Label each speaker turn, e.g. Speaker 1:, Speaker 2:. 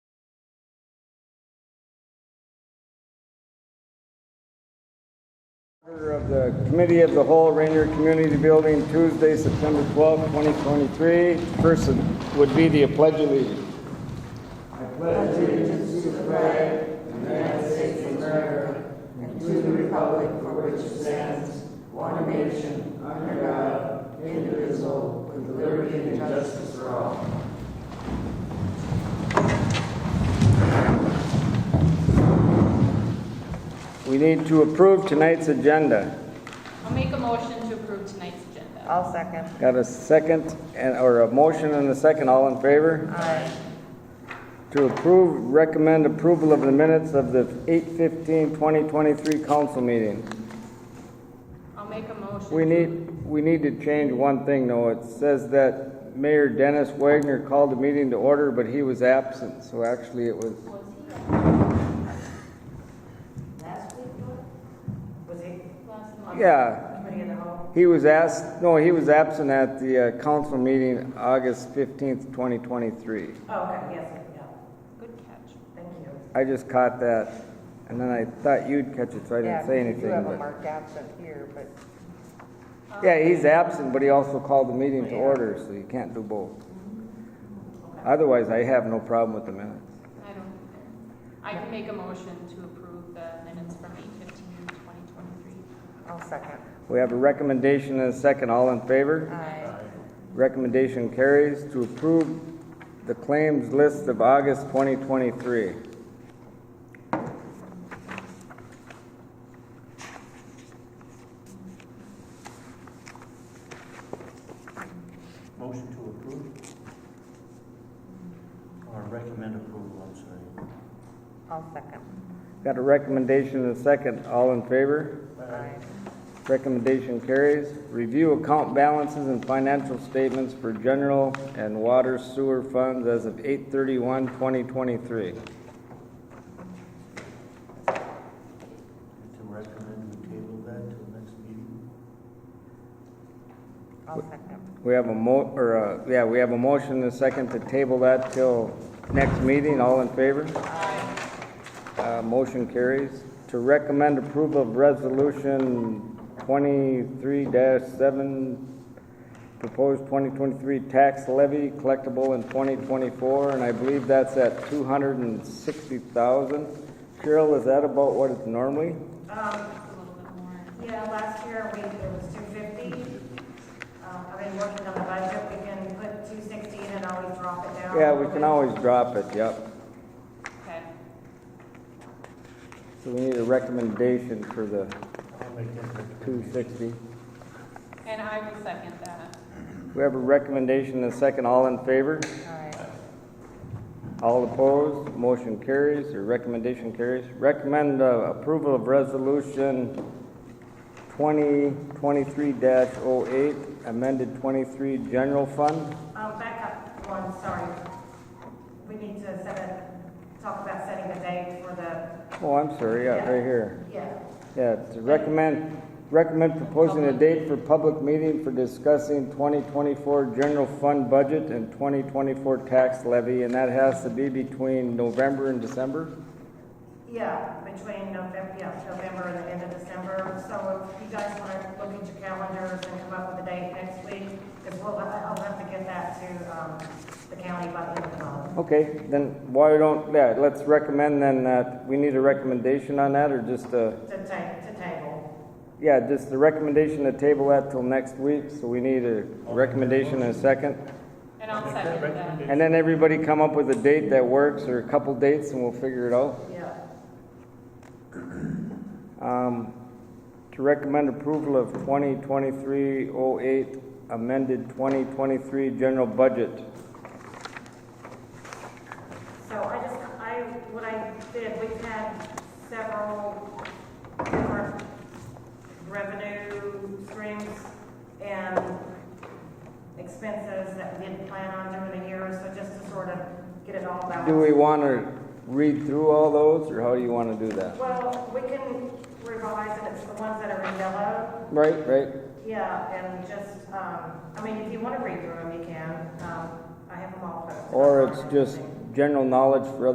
Speaker 1: Order Of the Committee of the Whole Rainier Community Building, Tuesday, September 12, 2023. First would be the Pledge of Allegiance. We need to approve tonight's agenda.
Speaker 2: I'll make a motion to approve tonight's agenda.
Speaker 3: I'll second.
Speaker 1: Got a second, and or a motion and a second, all in favor?
Speaker 3: Aye.
Speaker 1: To approve, recommend approval of the minutes of the 8/15/2023 council meeting.
Speaker 2: I'll make a motion.
Speaker 1: We need, we need to change one thing though. It says that Mayor Dennis Wagner called the meeting to order, but he was absent, so actually it was,
Speaker 2: Was he
Speaker 3: Last week, was he?
Speaker 2: last month?
Speaker 1: yeah.
Speaker 3: Committee of the whole?
Speaker 1: He was asked, no, he was absent at the uh, council meeting August fifteenth, twenty twenty-three.
Speaker 3: Oh, okay, yes, yeah,
Speaker 2: Good catch.
Speaker 3: thank you.
Speaker 1: I just caught that, and then I thought you'd catch it, so I didn't say anything.
Speaker 3: You have a
Speaker 1: but-
Speaker 3: marked absent here, but
Speaker 1: Yeah, he's absent, but he also called the meeting to
Speaker 3: Yeah.
Speaker 1: order, so you can't do both. Otherwise, I have no problem with the minutes.
Speaker 2: I don't either. I can make a motion to approve the minutes from 8:15, 2023.
Speaker 3: I'll second.
Speaker 1: We have a recommendation and a second. All in favor?
Speaker 3: Aye.
Speaker 1: Recommendation carries to approve the claims list of August 2023.
Speaker 4: Motion to approve? Or recommend approval, I'm sorry.
Speaker 3: I'll second.
Speaker 1: Got a recommendation and a second. All in favor?
Speaker 3: Aye.
Speaker 1: Recommendation carries. Review account balances and financial statements for general and water sewer funds as of 8/31/2023.
Speaker 4: To recommend we table that till next meeting?
Speaker 3: I'll second.
Speaker 1: We have a mo, or, uh, yeah, we have a motion and a second to table that till next meeting. All in favor? Uh, motion carries. To recommend approval of resolution twenty-three seven, proposed twenty twenty-three tax levy collectible in twenty twenty-four, and I believe that's at two hundred and sixty thousand. Cheryl, is that about what it's normally?
Speaker 2: A little bit more.
Speaker 5: Yeah, last year, we, it was two fifty. Um, I've been working on the budget, we can put two sixty in and always drop it down.
Speaker 1: Yeah, we can always drop it, yep.
Speaker 2: Okay.
Speaker 1: So we need a recommendation for the
Speaker 4: I'll make that
Speaker 1: two sixty.
Speaker 4: recommendation.
Speaker 2: And I will second that.
Speaker 1: We have a recommendation and a second. All in favor?
Speaker 3: Aye.
Speaker 1: All opposed, motion carries, or recommendation carries. Recommend uh, approval of resolution twenty twenty-three 8 amended twenty-three general fund.
Speaker 5: Um, back up one, sorry. We need to set a, talk about setting a date for the.
Speaker 1: Oh, I'm sorry, yeah, right here.
Speaker 5: Yeah,
Speaker 1: Yeah, to recommend, recommend proposing a date for public meeting for discussing twenty twenty-four general fund budget and twenty twenty-four tax levy, and that has to be between November and December?
Speaker 5: yeah, between November, yeah, November and the end of December. So if you guys want to look at your calendars and come up with a date next week, because we'll, I'll have to get that to, um, the county by the end of the month.
Speaker 1: Okay, then why don't, yeah, let's recommend then that, we need a recommendation on that, or just a,
Speaker 5: To ta, to table.
Speaker 1: yeah, just the recommendation to table that till next week, so we need a recommendation in a second.
Speaker 2: And I'll
Speaker 4: Make that
Speaker 2: second that.
Speaker 4: recommendation.
Speaker 1: And then everybody come up with a date that works, or a couple dates, and we'll figure it out.
Speaker 5: Yeah.
Speaker 1: Um, to recommend approval of 2023-08 amended 2023 general budget.
Speaker 5: So I just, I, what I did, we've had several different revenue streams and expenses that we didn't plan on doing in a year, so just to sort of get it all balanced.
Speaker 1: Do we want to read through all those, or how do you want to do that?
Speaker 5: Well, we can revise it, it's the ones that are in yellow,
Speaker 1: Right, right?
Speaker 5: yeah, and just, um, I mean, if you want to read through them, you can, um, I have them all posted.
Speaker 1: Or it's just general knowledge for other